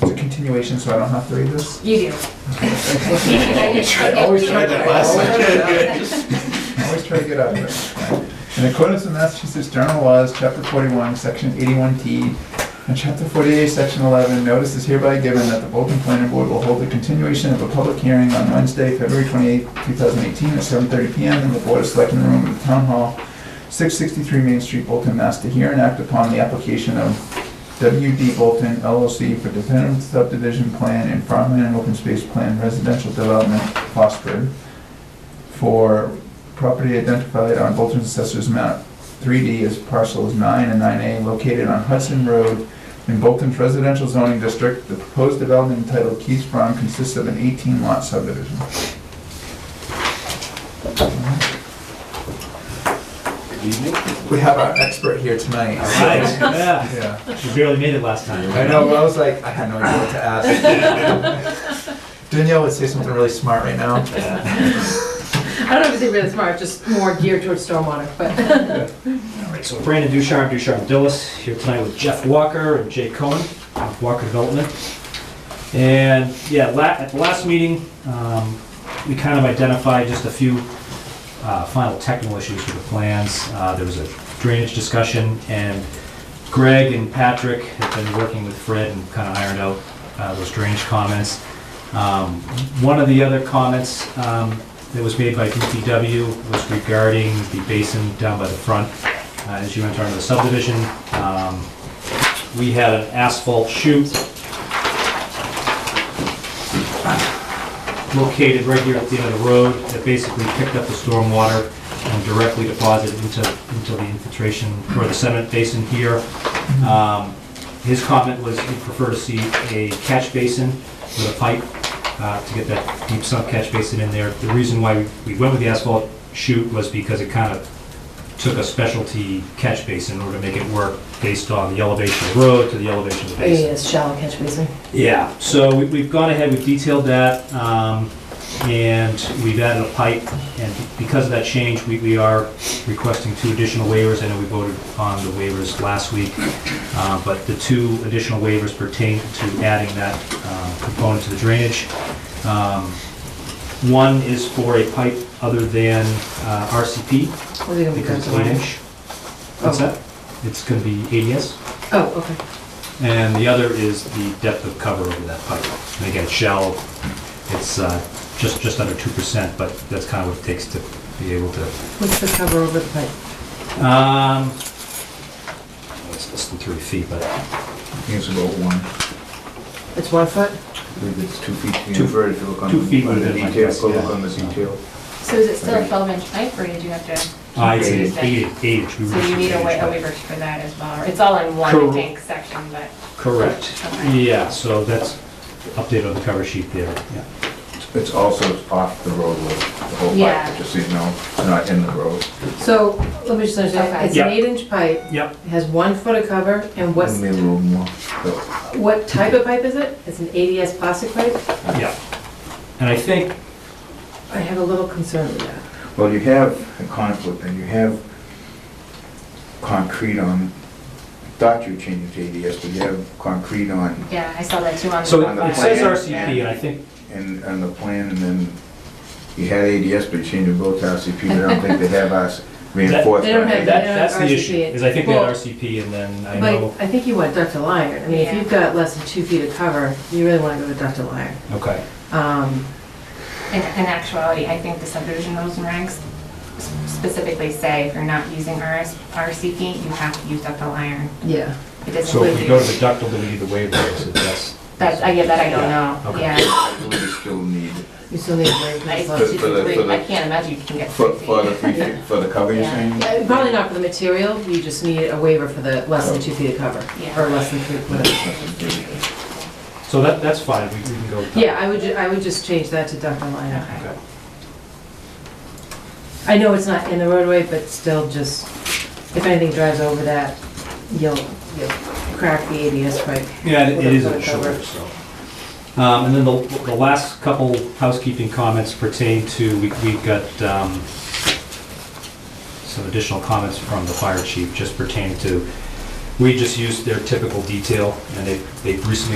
continuation so I don't have to read this? You do. I always tried that last time. I always try to get out of it. In accordance with Massachusetts General Laws, Chapter 41, Section 81T, and Chapter 48, Section 11, notice is hereby given that the Bolton Planning Board will hold a continuation of a public hearing on Wednesday, February 28, 2018, at 7:30 PM in the Board of Selectmen Room of the Town Hall, 663 Main Street, Bolton, Mass. to hear and act upon the application of WD Bolton LLC for definitive subdivision plan and farmland and open space plan residential development, Fosford, for property identified on Bolton Assessor's map 3D as parcels 9 and 9A located on Hudson Road in Bolton's residential zoning district. The proposed development entitled Keys Farm consists of an 18-lot subdivision. Good evening. We have our expert here tonight. Yeah, Yeah. you barely made it last time. I know, I was like, I had no idea what to ask. Danielle would say something really smart right now. I don't know if it's even smart, just more geared towards stormwater, but. All right, so Brandon Ducharme, Ducharme Dillis, here tonight with Jeff Walker and Jay Cohen of Walker Development. And yeah, la- at the last meeting, um, we kind of identified just a few uh, final technical issues with the plans. Uh, There was a drainage discussion, and Greg and Patrick have been working with Fred and kind of ironed out uh, those drainage comments. Um, One of the other comments um, that was made by DPW was regarding the basin down by the front uh, as you enter into the subdivision. Um, We had an asphalt chute located right here at the end of the road that basically picked up the stormwater and directly deposited into, into the infiltration or the sediment basin here. Um, His comment was he'd prefer to see a catch basin with a pipe uh, to get that deep sump catch basin in there. The reason why we went with the asphalt chute was because it kind of took a specialty catch basin in order to make it work based on the elevation of the road to the elevation of the basin. Yes, shallow catch basin. Yeah, so we- we've gone ahead, we've detailed that, um, and we've added a pipe, and because of that change, we we are requesting two additional waivers. I know we voted on the waivers last week, uh, but the two additional waivers pertain to adding that um, component to the drainage. Um, One is for a pipe other than uh, RCP, What are they gonna be because it's going eight to? inch. What's that? It's going to be ADS. Oh, okay. And the other is the depth of cover over that pipe. And again, it's shallow, it's uh, just, just under 2%, but that's kind of what it takes to be able to, What's the cover over the pipe? um, it's less than three feet, but I think it's about one. It's one foot? I believe it's two feet. Two- inverted if you look on two feet on the within, I detail, guess, go look yeah. on the detail. So is it still a twelve inch pipe, or did you have to, so uh, it's an eight, eight inch. we you reduced need it to a eight wa- inch, a but- waiver for that as well? It's all in one, Cor- I think, section, but, Correct, Okay. yeah, so that's updated on the cover sheet there, yeah. It's also off the roadway, the whole Yeah. pipe, just so you know, it's not in the road. So, let me just Okay. understand, it's an Yeah. eight inch pipe, Yep, it has one foot of cover, and what's, Maybe a little more. So, what type of pipe is it? It's an ADS plastic pipe? yeah. And I think, I have a little concern with that. Well, you have a conflict, and you have concrete on, thought you were changing to ADS, but you have concrete on, yeah, I saw that too on. so On the it says plan, RCP, and I think in, on the plan, and then you had ADS, but you changed it both to RCP, but I don't think they have us reinforced. They don't by have it. that, Yeah, that's the RCP. issue, is I think we had Well, RCP and then I know, But I think you want ductile iron, I mean, if Yeah. you've got less than two feet of cover, you really wanna go with ductile iron. okay. Um, In, in actuality, I think the subdivision rules and regs s- specifically say if you're not using RS, RCP, you have to use ductile iron. yeah. It doesn't. So if we go to include- the ductile, do we need the waiver, or is it just? That, I get that, I don't know, Okay. yeah. I believe you still need, You still need a brake I as used well. to do For the- for three, the- I can't imagine you can get for, three for the, feet. three feet- for the cover you're Yeah. saying? Uh, Probably not for the material, you just need a waiver for the less than two feet of cover, Yeah. or less than three, whatever. So that, that's fine, we we can go. with that. Yeah, I would, ju- I would just change that to ductile iron. Okay. Okay. I know it's not in the roadway, but still just, if anything drives over that, you'll, you'll crack the ABS pipe. Yeah, it it is With a a cover. shorter, so. Um, And then the, the last couple housekeeping comments pertain to, we- we've got um, some additional comments from the fire chief just pertaining to, we just used their typical detail, and they, they've recently